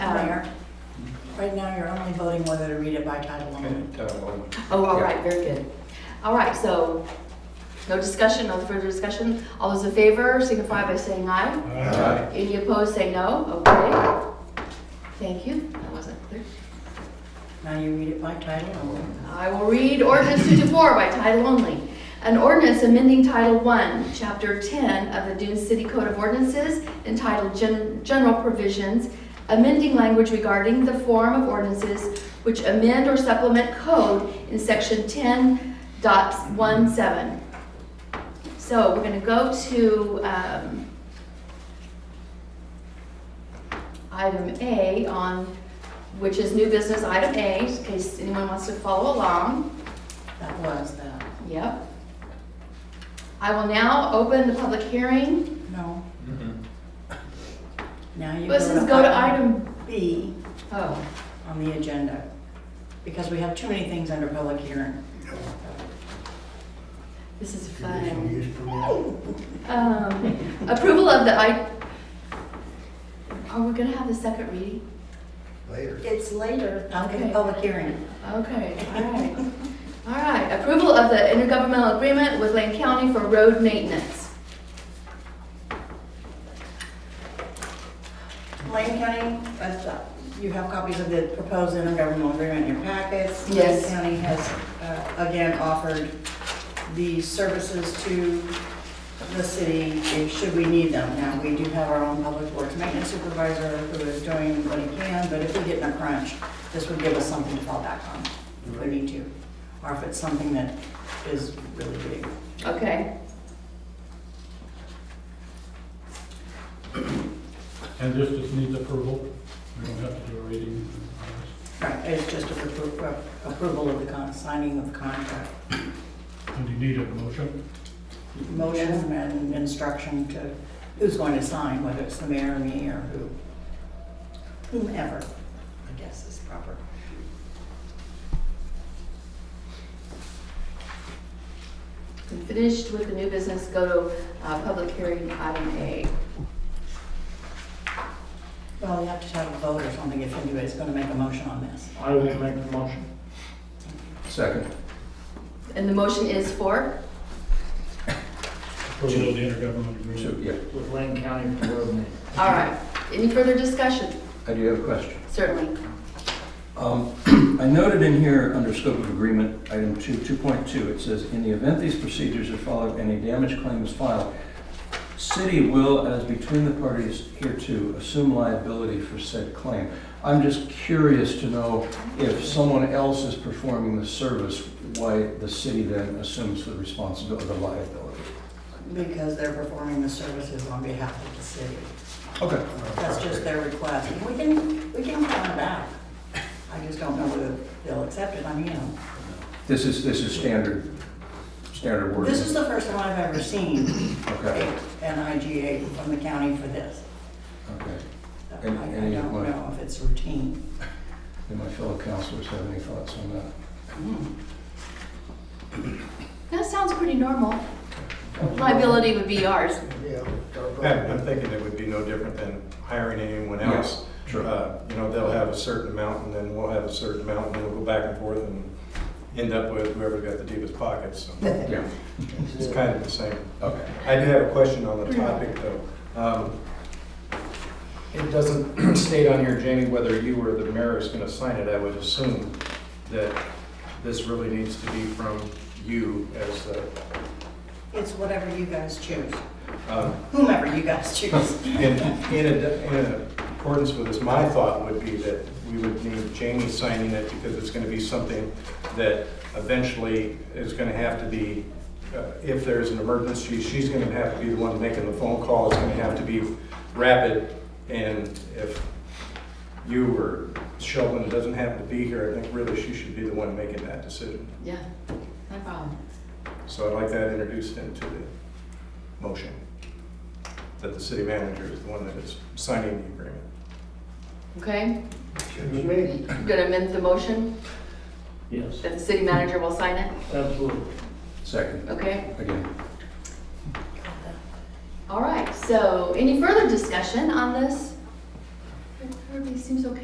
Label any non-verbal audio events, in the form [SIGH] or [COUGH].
Um, Right now, you're only voting whether to read it by title only. Okay, title one. Oh, all Yeah. right, very good. All right, so no discussion, no further discussion. All those in favor signify by saying aye. Aye. Any opposed, say no. Okay. Thank you. That wasn't clear. Now you read it by title only. I will read ordinance 54 by title only. An ordinance amending Title 1, Chapter 10 of the Dune City Code of Ordinances entitled Gen- General Provisions, amending language regarding the form of ordinances which amend or supplement code in Section 10.17. So we're going to go to um, item A on which is new business item A, in case anyone wants to follow along. That was that. Yep. I will now open the public hearing. No, Mm-hmm. now you go Let's to. just go to item, B oh, on the agenda, because we have too many things under public hearing. this is fun. Conditional use permit. Um, Approval of the, I, are we gonna have the second reading? Later. It's later. After the Okay. public hearing. Okay, all right. All right, approval of the intergovernmental agreement with Lane County for road maintenance. Lane County, that's, uh, you have copies of the proposed intergovernmental agreement in your packets. Yes. Lane County has, uh, again, offered these services to the city if- should we need them. Now, we do have our own public works maintenance supervisor who is doing what he can, but if we get in a crunch, this would give us something to fall back on if we need to, or if it's something that is really big. Okay, And this just needs approval. We don't have to do a reading. Uh, Right, it's just a appro- approval of the con, signing of the contract. And you need a motion. motion and instruction to who's going to sign, whether it's the mayor or me or who, whomever, I guess is proper. we finished with the new business, go to uh, public hearing item A. Well, you have to have a vote or something if anybody's going to make a motion on this. I will make the motion. Second. And the motion is for? Approval of the intergovernmental So, agreement. yeah, With Lane County for road name. All right. Any further discussion? I do have a question. Certainly. Um, [CLEARS THROAT] I noted in here, under scope of agreement, item two, 2.2, it says, "In the event these procedures are followed and a damage claim is filed, city will, as between the parties hereto, assume liability for said claim." I'm just curious to know if someone else is performing the service, why the city then assumes the responsibility, the liability. Because they're performing the services on behalf of the city. Okay. That's just their request. And we can, we can come back. I just don't know whether they'll accept it. I mean, you know, This is, this is standard, standard wording. this is the first time I've ever seen Okay, a- an IGA from the county for this. okay. So I I And- don't and you- know if it's routine. Do my fellow counselors have any thoughts on that? That sounds pretty normal. Liability would be ours. Yeah. I'm I'm thinking it would be no different than hiring anyone else. Sure. Uh, You know, they'll have a certain amount, and then we'll have a certain amount, and we'll go back and forth and end up with whoever's got the deepest pockets. So Yeah, It's kind of the same. okay. I do have a question on the topic, though. Um, It doesn't [CLEARS THROAT] state on here, Jamie, whether you or the mayor is going to sign it. I would assume that this really needs to be from you as the, It's whatever you guys choose, um, whomever you guys choose. In, in ad- in accordance with this, my thought would be that we would need Jamie signing it because it's gonna be something that eventually is gonna have to be, uh, if there's an emergency, she's gonna have to be the one making the phone call, it's gonna have to be rapid. And if you or Sheldon doesn't happen to be here, I think really she should be the one making that decision. Yeah, no problem. So I'd like that introduced into the motion, that the city manager is the one that is signing the agreement. Okay? Excuse me? You gonna amend the motion Yes, that the city manager will sign it? absolutely. Second, Okay? again. All right, so any further discussion on this? Everybody seems okay